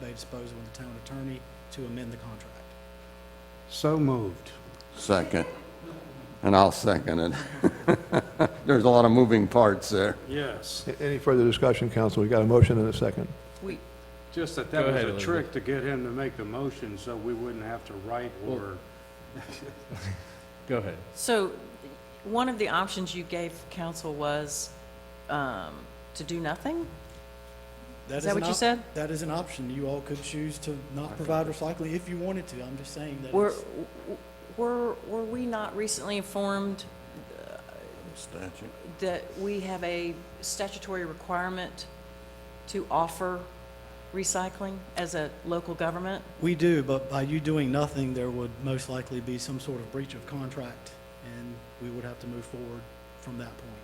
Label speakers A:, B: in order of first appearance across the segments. A: they dispose with the town attorney to amend the contract.
B: So moved.
C: Second. And I'll second it. There's a lot of moving parts there.
D: Yes,
E: A- Any further discussion, council? We got a motion and a second.
F: We,
D: just that
G: Go
D: that was
G: ahead,
D: a
G: Elizabeth.
D: trick to get him to make the motion so we wouldn't have to write or,
G: Go ahead.
F: so, one of the options you gave council was um, to do nothing? Is that
A: an
F: what you
A: op-
F: said?
A: That is an option. You all could choose to not provide recycling if you wanted to. I'm just saying that
F: Were,
A: it's-
F: were, were we not recently informed
C: Statute.
F: that we have a statutory requirement to offer recycling as a local government?
A: we do, but by you doing nothing, there would most likely be some sort of breach of contract, and we would have to move forward from that point.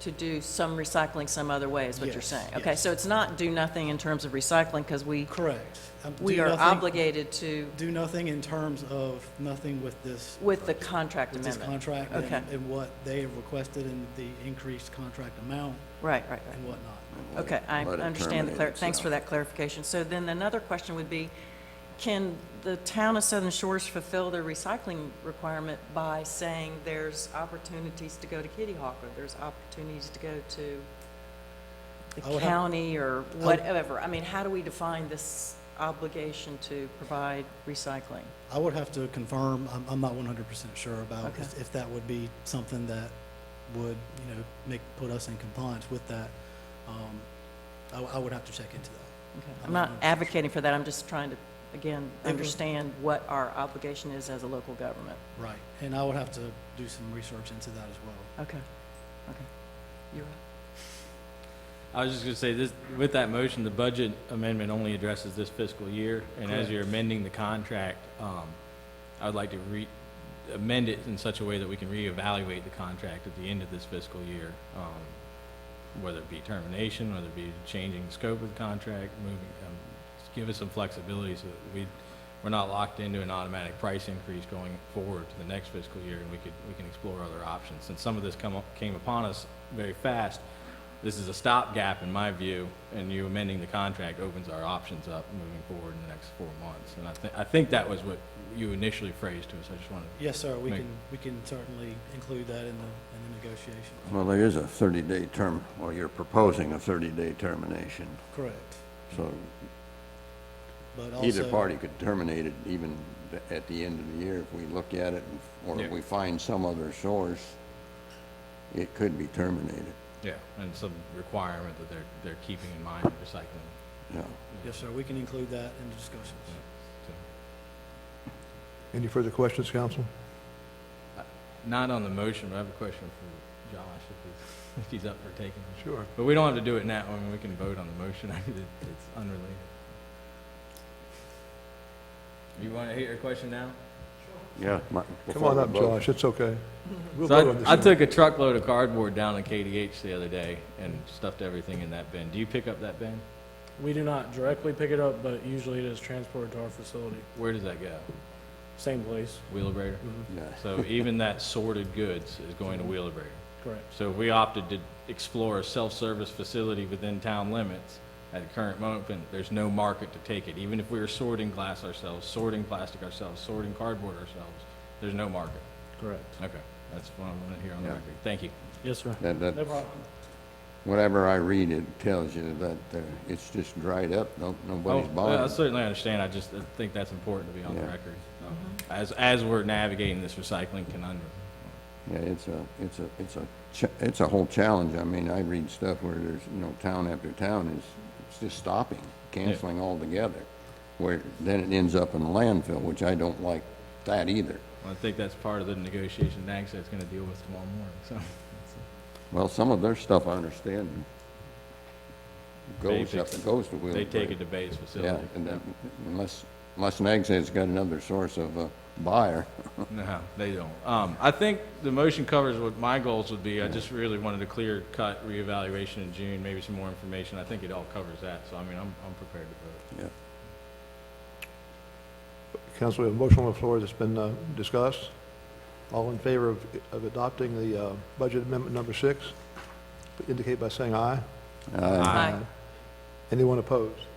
F: To do some recycling some other way, is what you're
A: Yes,
F: saying? Okay,
A: yes.
F: so it's not do nothing in terms of recycling, because we,
A: Correct. Um,
F: we
A: do
F: are
A: nothing-
F: obligated to,
A: Do nothing in terms of nothing with this,
F: with the contract
A: with this
F: amendment.
A: contract and-
F: Okay.
A: and what they have requested and the increased contract amount
F: Right, right, right.
A: and whatnot.
F: Okay, I
C: Let it
F: understand the, clar-
C: terminate
F: thanks for
C: itself.
F: that clarification. So then another question would be, can the town of Southern Shores fulfill their recycling requirement by saying there's opportunities to go to Kitty Hawk, or there's opportunities to go to
A: I
F: the
A: would have-
F: county, or whatever? I mean, how do we define this obligation to provide recycling?
A: I would have to confirm, I'm, I'm not one hundred percent sure about
F: Okay.
A: if, if that would be something that would, you know, make, put us in compliance with that. Um, I, w- I would have to check into that.
F: Okay.
A: I'm
F: I'm
A: not
F: not
A: sure.
F: advocating for that, I'm just trying to, again,
A: was-
F: understand what our obligation is as a local government.
A: Right, and I would have to do some research into that as well.
F: Okay, okay. You're up.
G: I was just gonna say, this, with that motion, the budget amendment only addresses this fiscal year, and as
A: Correct.
G: you're amending the contract, um, I would like to re, amend it in such a way that we can reevaluate the contract at the end of this fiscal year, um, whether it be termination, whether it be changing the scope of the contract, moving, um, just give us some flexibility so that we, we're not locked into an automatic price increase going forward to the next fiscal year, and we could, we can explore other options. Since some of this come, up- came upon us very fast, this is a stopgap in my view, and you amending the contract opens our options up moving forward in the next four months. And I think, I think that was what you initially phrased to us, I just wanted,
A: Yes, sir, we
G: Make-
A: can, we can certainly include that in the, in the negotiation.
C: Well, there is a 30-day term, or you're proposing a 30-day termination.
A: Correct,
C: So
A: but also.
C: either party could terminate it even th- at the end of the year if we look at it, and- or
G: Yeah.
C: if we find some other source, it could be terminated,
G: yeah, and some requirement that they're, they're keeping in mind with recycling.
C: yeah.
A: Yes, sir, we can include that in the discussions.
E: Any further questions, council?
G: Not on the motion, but I have a question for Josh, if he's, if he's up for taking it.
E: Sure.
G: But we don't have to do it now, I mean, we can vote on the motion, I mean, it- it's unrelated. You want to hear your question now?
C: Yeah. my-
E: Come
C: before
E: on
C: we
E: up,
C: vote.
E: Josh, it's okay. We'll vote on
G: So
E: this
G: I, I
E: in a
G: took a truckload of cardboard down to KDH the other day and stuffed everything in that bin. Do you pick up that bin?
H: We do not directly pick it up, but usually it is transported to our facility.
G: Where does that go?
H: Same place,
G: Wheelabrator?
C: Yeah.
G: So even that sorted goods is going to Wheelabrator.
H: correct.
G: So we opted to explore a self-service facility within town limits. At the current moment, there's no market to take it. Even if we were sorting glass ourselves, sorting plastic ourselves, sorting cardboard ourselves, there's no market.
H: Correct.
G: Okay, that's what I want to hear on the
C: Yeah.
G: record. Thank you.
H: Yes, sir.
C: That, that,
H: No problem.
C: whatever I read, it tells you that uh, it's just dried up, no, nobody's
G: Oh, well, I
C: buying.
G: certainly understand, I just uh, think that's important to be on the
C: Yeah.
G: record, um, as, as we're navigating this recycling conundrum.
C: Yeah, it's a, it's a, it's a, cha- it's a whole challenge. I mean, I read stuff where there's, you know, town after town is, it's just stopping, canceling altogether. Where, then it ends up in the landfill, which I don't like that either.
G: Well, I think that's part of the negotiation NAGSTAT's gonna deal with tomorrow morning, so.
C: Well, some of their stuff I understand
G: They
C: goes up,
G: fix it.
C: goes to Wheeling.
G: They take it to base
C: Yeah,
G: facility.
C: and that- unless, unless NAGSTAD's got another source of a buyer.
G: No, they don't. Um, I think the motion covers what my goals would be. I just really wanted a clear cut reevaluation in June, maybe some more information. I think it all covers that, so I mean, I'm, I'm prepared to vote.
C: Yeah.
E: Council, we have a motion on the floor that's been uh, discussed. All in favor of of adopting the uh, budget amendment number six, indicate by saying aye.
C: Uh,
F: Aye.
E: Anyone opposed?